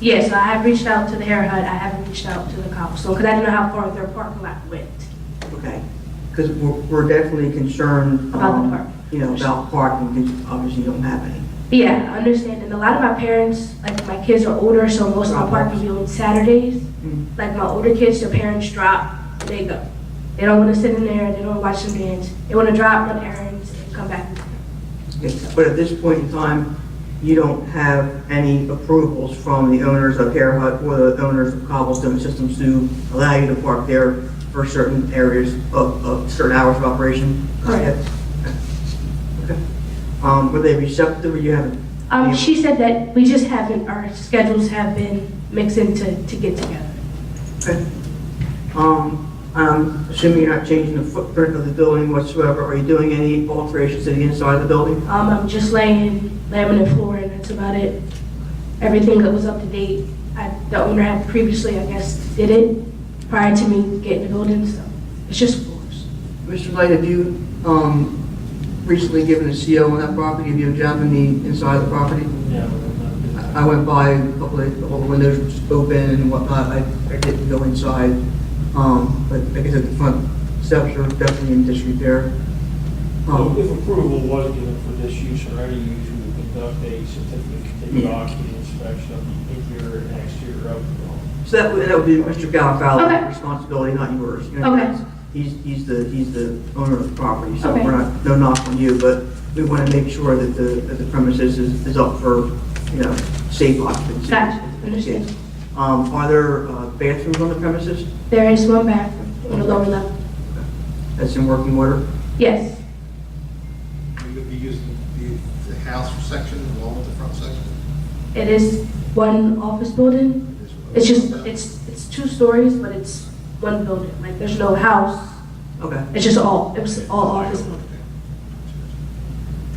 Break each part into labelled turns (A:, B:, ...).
A: Yes, I have reached out to the Hair Hut, I haven't reached out to the cops, so, because I didn't know how far their parking lot went.
B: Okay, because we're, we're definitely concerned.
A: About the
B: um,
A: park.
B: You know, about parking, because obviously you don't have any.
A: Yeah, I understand, and a lot of my parents, like, my kids are older, so most of my parking is on Saturdays.
B: Mm.
A: Like, my older kids, their parents drop, they go. They don't want to sit in there, they don't watch them dance, they want to drop, run errands, and come back.
B: Yes, But at this point in time, you don't have any approvals from the owners of Hair Hut or the owners of Cobblestone Systems to allow you to park there for certain areas of, of certain hours of operation?
A: Correct.
B: Okay. Um, were they receptive, or you haven't?
A: Um, she said that we just haven't, our schedules have been mixed into, to get together.
B: Okay. Um, I'm assuming you're not changing the footprint of the building whatsoever, are you doing any alterations to the inside of the building?
A: Um, I'm just laying laminate floor and that's about it. Everything that was up to date, I, the owner had previously, I guess, did it prior to me getting the building, so it's just floors.
B: Mr. Light, have you um, recently given a CO on that property? Have you examined the inside of the property?
C: Yeah, we're not-
B: I I went by, a couple of, all the windows were open and whatnot, I I didn't go inside. Um, But like I said, the front steps are definitely in disrepair.
C: If
B: Um,
C: if approval was given for this use or any use, we would conduct a certificate of continued occupancy inspection of the interior and exterior of the building.
B: So that would, that would be Mr. Galafallo's
A: Okay.
B: responsibility, not yours. You know,
A: Okay.
B: that's- He's, he's the, he's the owner of the property, so
A: Okay.
B: we're not, no knock on you, but we want to make sure that the, that the premises is, is up for, you know, safe occupancy.
A: Gotcha, understood.
B: Um, are there uh, bathrooms on the premises
A: There is one bathroom on the lower level.
B: that's in working order?
A: Yes,
D: You're gonna be using the, the house section along with the front section?
A: it is one office building. It's just, it's, it's two stories, but it's one building. Like, there's no house.
B: Okay.
A: It's just all, it was all office building.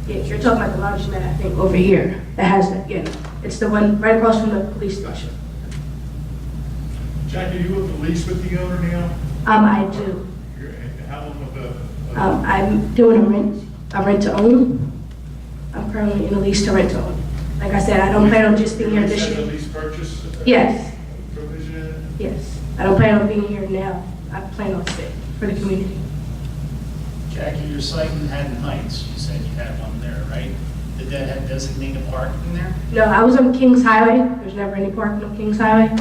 A: Yeah, you're talking about the lounge that I think over here, that has that, yeah. It's the one right across from the police station.
E: Jack, are you with the lease with the owner now?
A: Um, I do.
E: You're- and How long of a- a,
A: Um, I'm doing a rent, a rent to own. I'm currently in a lease to rent to own. Like I said, I don't plan on just being here this
E: Is that a
A: year.
E: lease purchase? uh,
A: Yes,
E: Provision?
A: yes. I don't plan on being here now. I plan on staying for the community.
F: Jackie, your site in Haddon Heights, you said you had one there, right? Did that have designated parking there?
A: No, I was on Kings Highway. There's never any parking on Kings Highway.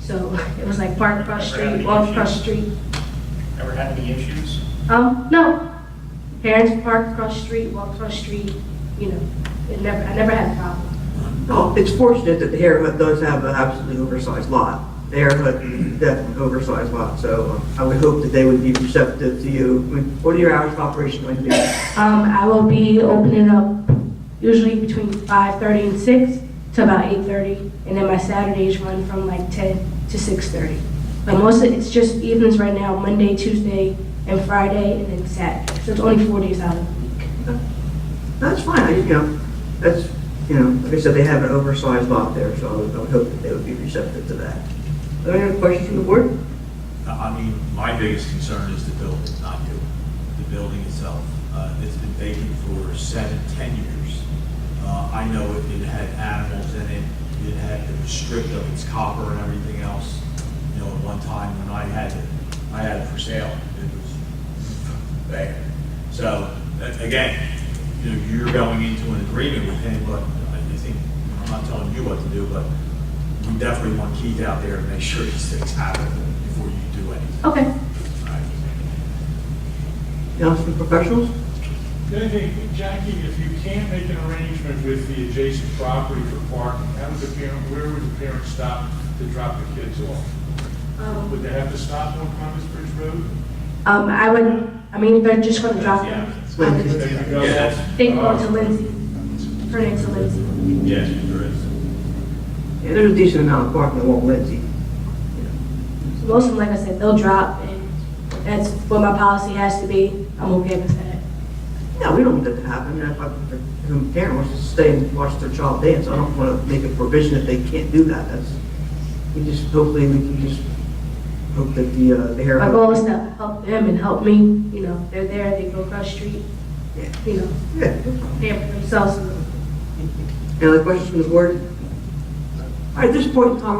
A: So it was like park across the street, walk across the street.
F: Ever had any issues?
A: Um, no. Parents park across the street, walk across the street, you know, it never, I never had a problem.
B: Well, Oh, it's fortunate that the Hare Hut does have an absolutely oversized lot. The Hare Hut is definitely an oversized lot, so um, I would hope that they would be receptive to you. I mean, What are your hours of operation going to be?
A: Um, I will be opening up usually between five thirty and six to about eight thirty, and then my Saturdays run from like ten to six thirty. But most of, it's just evenings right now, Monday, Tuesday, and Friday, and then Saturday. So it's only four days out of the week.
B: That's fine, I- you know, that's, you know, like I said, they have an oversized lot there, so I would I would hope that they would be receptive to that. Are there any other questions from the board?
G: I I mean, my biggest concern is the building, not you, the building itself. Uh, It's been vacant for seven, 10 years. Uh, I know it it had animals in it, it had, it was stripped of its copper and everything else. You know, at one time when I had it, I had it for sale, it was bad. So, a- again, you know, you're going into an agreement with him, but I I think, I'm not telling you what to do, but we definitely want Keith out there to make sure these things happen before you do anything.
A: Okay.
G: all right?
B: Council professionals?
E: The only thing, Jackie, if you can't make an arrangement with the adjacent property for parking, how would the parent, where would the parents stop to drop the kids off?
A: Um,
E: Would they have to stop on Columbus Bridge Road?
A: Um, I would, I mean, if they're just gonna drop them.
B: Lindsay.
E: They could go-
G: Yes.
A: They go to Lindsay, her name's Lindsay.
G: Yes, there is.
B: Yeah, there's a decent amount of parking along Lindsay.
A: Most of them, like I said, they'll drop, and that's what my policy has to be. I'm okay with that.
B: No, we don't want that to happen. If I- if a parent wants to stay and watch their child dance, I don't want to make a provision that they can't do that. That's, we just, hopefully, we can just hope that the, uh, the hair.
A: My goal is to help them and help me, you know, they're there, they go across the street,
B: Yeah.
A: you know,
B: Yeah.
A: pay for themselves.
B: Any other questions from the board? At this point in time,